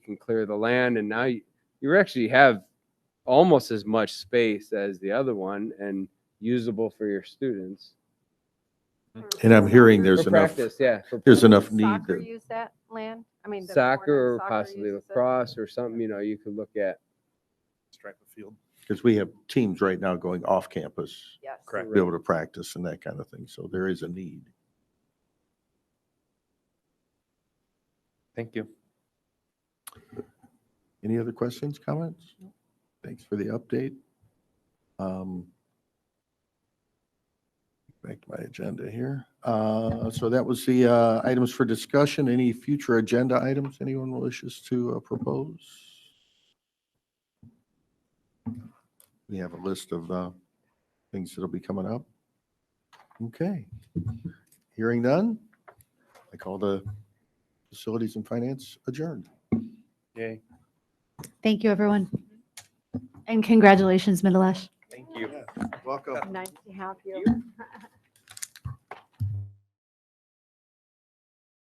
can clear the land, and now you, you actually have almost as much space as the other one and usable for your students. And I'm hearing For there's enough, practice, yeah. for there's practice. enough Does need Soccer that, use that land? I mean. the Soccer or Florida soccer possibly uses it? lacrosse or something, you know, you could look at. stripe of field. because we have teams right now going off campus, Yes. Correct. to be able to practice and that kind of thing. So there is a need. Thank you. Any other questions, comments? Thanks for the update. Um, Back to my agenda here. Uh, So that was the uh, items for discussion. Any future agenda items anyone wishes to uh, propose? We have a list of uh, things that'll be coming up. Okay. Hearing none. I call the Facilities and Finance adjourned. Yay. Thank you, everyone. And congratulations, Middleash. Thank you. Welcome. Nice to have you.